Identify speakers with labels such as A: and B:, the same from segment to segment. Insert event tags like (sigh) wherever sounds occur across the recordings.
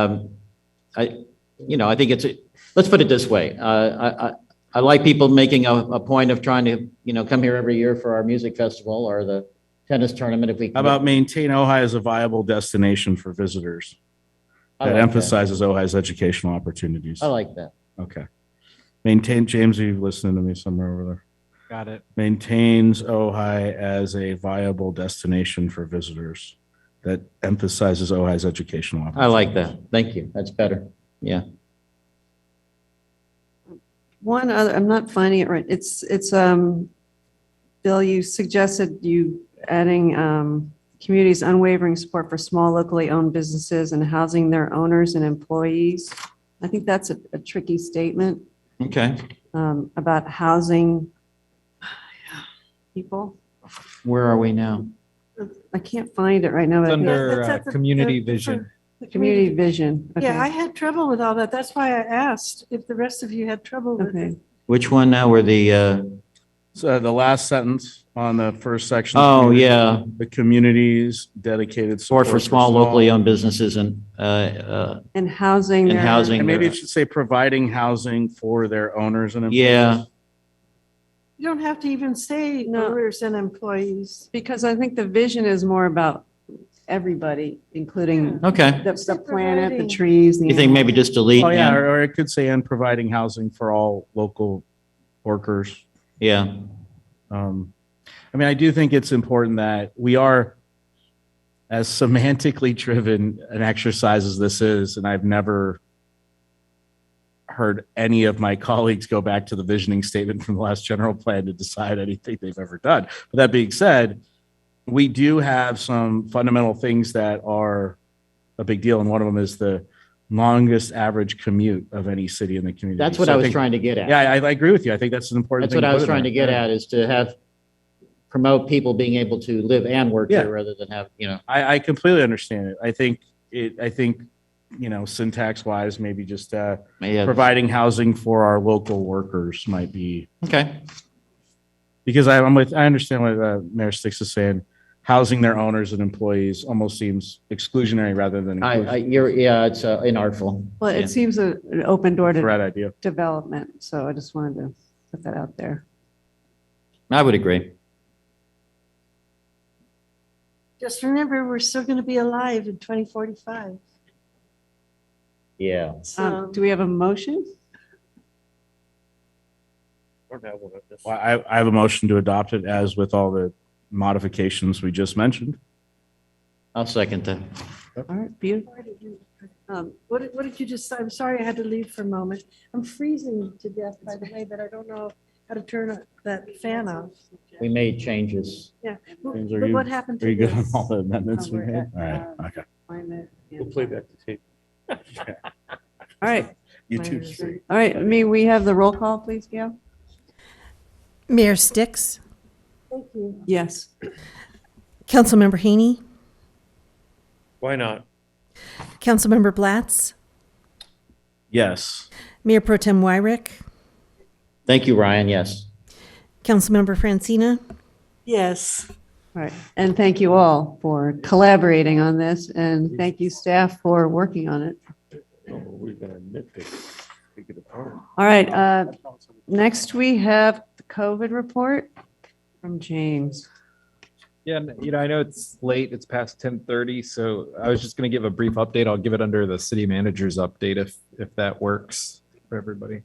A: Um, I, you know, I think it's, let's put it this way. Uh, I, I, I like people making a, a point of trying to, you know, come here every year for our music festival or the tennis tournament if we.
B: How about maintain Ojai as a viable destination for visitors
A: I
B: that
A: like
B: emphasizes Ojai's educational opportunities?
A: I like that.
B: Okay. Maintain, James, are you listening to me somewhere over there?
C: Got it.
B: Maintains Ojai as a viable destination for visitors that emphasizes Ojai's educational.
A: I
B: opportunities.
A: like that. Thank you. That's better. Yeah.
D: One other, I'm not finding it right. It's, it's, um, Bill, you suggested you adding, um, communities unwavering support for small locally owned businesses and housing their owners and employees. I think that's a a tricky statement,
A: Okay.
D: um, about housing people.
A: Where are we now?
D: I can't find it right now. but I think-
C: Under
E: that's
C: uh,
E: at the-
C: community
E: the- the
C: vision.
D: Community vision. Okay.
E: Yeah, I had trouble with all that. That's why I asked if the rest of you had trouble with it.
D: Okay.
A: Which one now? Where the, uh,
B: So the last sentence on the first section.
A: oh, yeah.
B: The communities dedicated.
A: Support for small locally owned businesses and, uh, uh,
D: And housing.
A: And
D: their-
A: housing.
B: And maybe it should say providing housing for their owners and. employees.
A: Yeah.
E: You don't have to even say
D: No.
E: owners and employees.
D: Because I think the vision is more about everybody, including
A: okay.
D: the, the planet, the
E: Providing.
D: trees. the
A: You think maybe just delete?
B: Oh, yeah,
A: and-
B: or or it could say, and providing housing for all local workers.
A: Yeah.
B: Um, I mean, I do think it's important that we are as semantically driven an exercise as this is, and I've never heard any of my colleagues go back to the visioning statement from the last general plan to decide anything they've ever done. But that being said, we do have some fundamental things that are a big deal, and one of them is the longest average commute of any city in the community.
A: That's what
B: So
A: I was
B: think-
A: trying to get at.
B: Yeah, I, I agree with you. I think that's an important.
A: That's
B: thing
A: what I
B: put
A: was
B: in
A: trying to
B: there.
A: get
B: Yeah.
A: at, is to have, promote people being able to live and work
B: Yeah.
A: here rather than have, you know.
B: I, I completely understand it. I think it, I think, you know, syntax wise, maybe just, uh,
A: yeah.
B: providing housing for our local workers might be,
A: Okay,
B: because I- I'm with, I understand what, uh, Mayor Sticks is saying. Housing their owners and employees almost seems exclusionary rather than
A: I, I,
B: inclusive.
A: you're, yeah, it's uh, inartful.
D: Well,
A: Yeah.
D: it seems a- an open door to
B: Right idea.
D: development, so I just wanted to put that out there.
A: I would agree.
E: Just remember, we're still going to be alive in 2045.
A: Yeah.
D: Um,
E: So
D: Do we have a motion?
B: Well, I, I have a motion to adopt it as with all the modifications we just mentioned.
A: I'll second that.
D: All right, beautiful.
E: Um, What did, what did you just, I'm sorry I had to leave for a moment. I'm freezing to death, by the way, but I don't know how to turn that fan off.
A: We made changes.
E: But
B: James, are
E: but
B: you-
E: what happened
B: Are
E: to
B: you good on (laughs)
E: this?
B: all the amendments we
D: We're
B: made?
D: at,
B: All right,
D: uh,
B: okay.
D: Climate and-
B: the tape.
D: All right,
B: You
D: two,
B: two,
D: three.
B: three.
D: all right, I mean, we have the roll call, please, Gail?
F: Mayor Sticks,
E: Thank you.
D: Yes.
F: Councilmember Haney,
G: Why not?
F: Councilmember Blatz,
B: Yes.
F: Mayor Pro Tem Wyrick,
A: Thank you, Ryan, yes.
F: Councilmember Francina,
E: Yes.
D: All right, and thank you all for collaborating on this, and thank you staff for working on it.
G: We're gonna nitpick. Pick it apart.
D: All right, uh, next we have the COVID report from James.
C: Yeah, and, you know, I know it's late, it's past ten thirty, so I was just gonna give a brief update. I'll give it under the city manager's update if, if that works for everybody.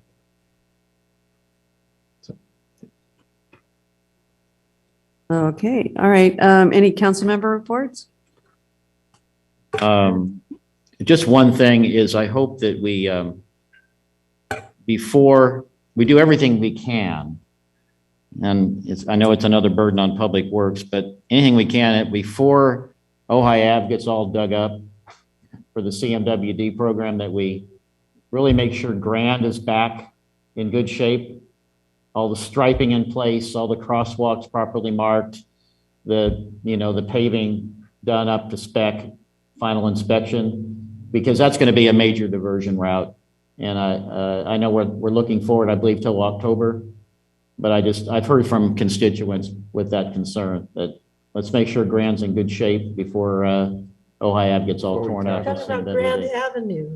D: Okay, all right, um, any council member reports?
A: Um, Just one thing is I hope that we, um, before, we do everything we can. And it's, I know it's another burden on Public Works, but anything we can, before Ojai Ave gets all dug up for the CMWD program, that we really make sure Grand is back in good shape. All the striping in place, all the crosswalks properly marked, the, you know, the paving done up to spec, final inspection, because that's going to be a major diversion route. And I, uh, I know we're, we're looking forward, I believe, till October, but I just, I've heard from constituents with that concern that let's make sure Grand's in good shape before, uh, Ohio Ave gets all
G: Before we
A: torn up.
G: tackle
A: and
E: Talking about
A: CMWD.
E: Grand Avenue.